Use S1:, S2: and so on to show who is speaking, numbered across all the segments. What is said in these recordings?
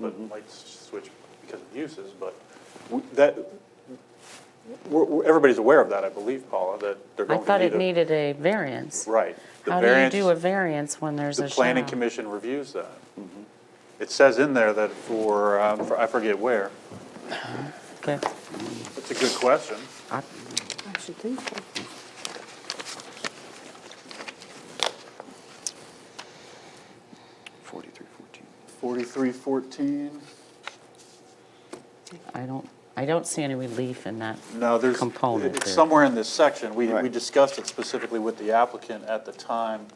S1: but might s- switch because of uses, but w- that, we're- we're- everybody's aware of that, I believe, Paula, that they're
S2: I
S1: going to
S2: thought
S1: need
S2: it
S1: a-
S2: needed a variance.
S1: Right. The
S2: How do you
S1: variance-
S2: do a variance when there's
S1: The
S2: a
S1: planning
S2: shadow?
S1: commission reviews that. It says in there that for, um, for- I forget where,
S2: Okay.
S1: that's a good question.
S2: I-
S3: I should think so.
S4: Forty-three fourteen.
S1: 4314,
S2: I don't, I don't see any relief in that.
S1: no, there's,
S2: Component
S1: it's
S2: there.
S1: somewhere in this section. We, we
S4: Right.
S1: discussed it specifically with the applicant at the time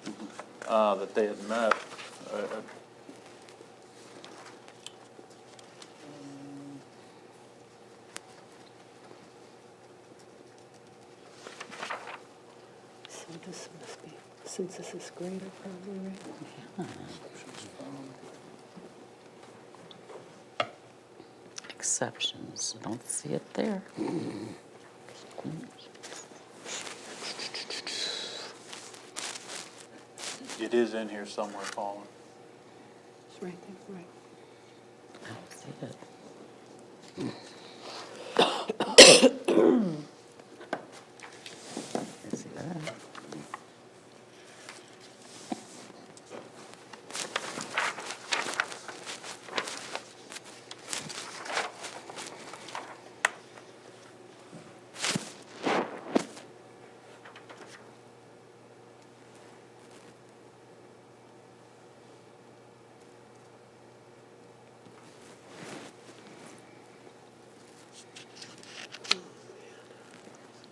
S1: uh, that they had met. Uh, uh,
S3: So this must be, since this is greater, probably, right?
S2: Exceptions, I don't see it there.
S1: It is in here somewhere, Paula.
S3: It's right there, right.
S2: I don't see it. I see that.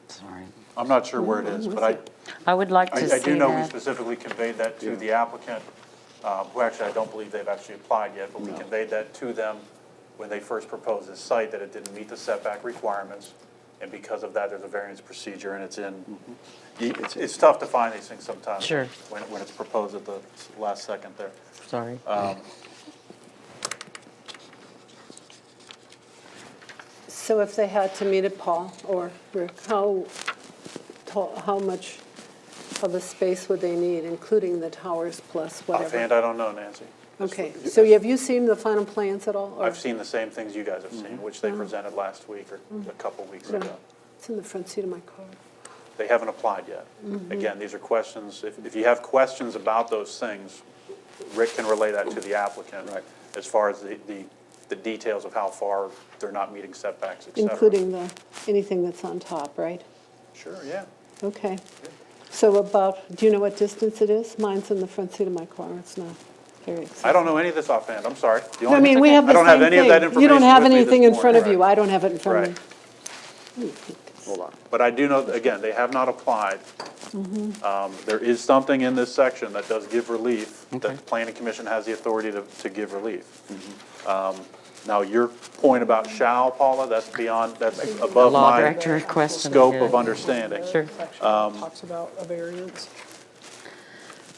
S2: Sorry.
S1: I'm not sure where it is, but I,
S2: I would like to
S1: I I
S2: see
S1: do know we
S2: that.
S1: specifically conveyed that to the applicant, um, who actually, I don't believe they've actually applied yet, but we conveyed that to them when they first proposed this site, that it didn't meet the setback requirements, and because of that, there's a variance procedure, and it's in, it's, it's tough to find these things sometimes.
S2: Sure.
S1: When, when it's proposed at the last second there. Um,
S2: Sorry.
S1: Uh,
S3: So if they had to meet at Paul or Rick, how tall, how much of a space would they need, including the towers plus
S1: Offhand,
S3: whatever?
S1: I don't know, Nancy.
S3: Okay, so have you seen the final plans at all? or-
S1: I've seen the same things you guys have seen, which
S2: Mm-hmm.
S1: they presented last week or a couple weeks
S3: No.
S1: ago.
S3: It's in the front seat of my car.
S1: They haven't applied yet.
S3: Mm-hmm.
S1: Again, these are questions, if, if you have questions about those things, Rick can relay that to the applicant.
S4: Right.
S1: As far as the, the, the details of how far they're not meeting setbacks, et cetera.
S3: Including the, anything that's on top, right?
S1: Sure, yeah.
S3: Okay. So about, do you know what distance it is? Mine's in the front seat of my car, it's not very
S1: I
S3: accessible.
S1: don't know any of this offhand, I'm sorry. The
S3: I
S1: only-
S3: mean, we have the
S1: I
S3: same
S1: don't
S3: thing.
S1: have any of that information
S3: You don't have
S1: with me this
S3: anything in front of
S1: morning.
S3: you, I don't have it in front of
S1: Right.
S3: me.
S4: Hold on.
S1: But I do know, that, again, they have not applied. Um, There is something in this section that does give relief, that the planning commission has the authority to, to give relief.
S2: Mm-hmm.
S1: Um, Now, your point about shall, Paula, that's beyond, that's above
S2: Law
S1: my
S2: director question.
S1: scope
S2: here.
S1: of understanding.
S2: Sure.
S5: section talks about a variance.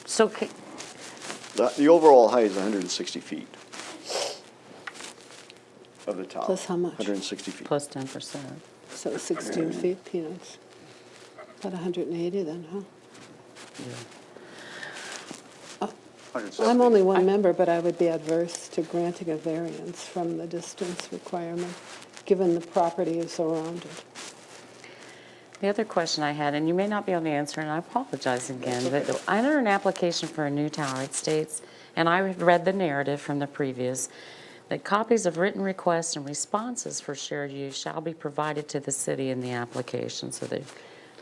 S2: So ca-
S4: The, the overall height is hundred and sixty feet of the tower.
S3: Plus how much?
S4: Hundred and sixty feet.
S2: plus 10%.
S3: So 16 feet, peanuts. About 180 then, huh? I'm
S1: 170.
S3: only one member, but I would be adverse to granting a variance from the distance requirement, given the property is surrounded.
S2: The other question I had, and you may not be able to answer, and I apologize again, but I entered an application for a new tower. It states, and I have read the narrative from the previous, that copies of written requests and responses for shared use shall be provided to the city in the application, so that,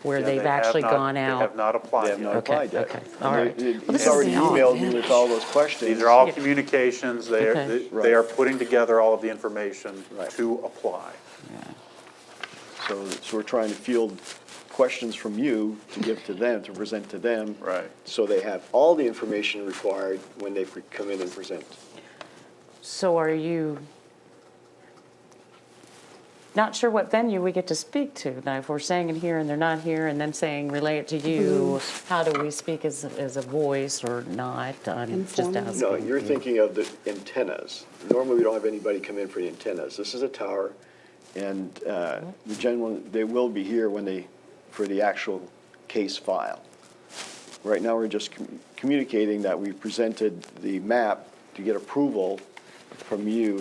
S2: where
S1: Yeah,
S2: they've
S1: have
S2: actually
S1: not-
S2: gone
S1: They have
S2: out.
S1: not
S4: They
S1: applied
S4: have not
S1: yet.
S2: Okay,
S4: applied yet.
S2: okay,
S4: And
S2: all
S4: they-
S2: right.
S4: they-
S2: Well, this
S4: He's
S2: is
S4: already
S2: the-
S4: emailed me with all those questions.
S1: These are all
S2: Yeah.
S1: communications, they are,
S2: Okay.
S1: they are putting together all of the information
S4: Right.
S1: to apply.
S4: So, so we're trying to field questions from you to give to them, to present to them.
S1: Right.
S4: So they have all the information required when they pre- come in and present.
S2: So are you not sure what venue we get to speak to? Now, if we're saying it here and they're not here, and them saying relay it to you, how do we speak as, as a voice or not? I'm just
S3: Informal.
S2: asking.
S4: No, you're thinking of the antennas. Normally, we don't have anybody come in for the antennas. This is a tower, and uh, the gentleman, they will be here when they, for the actual case file. Right now, we're just commu- communicating that we presented the map to get approval from you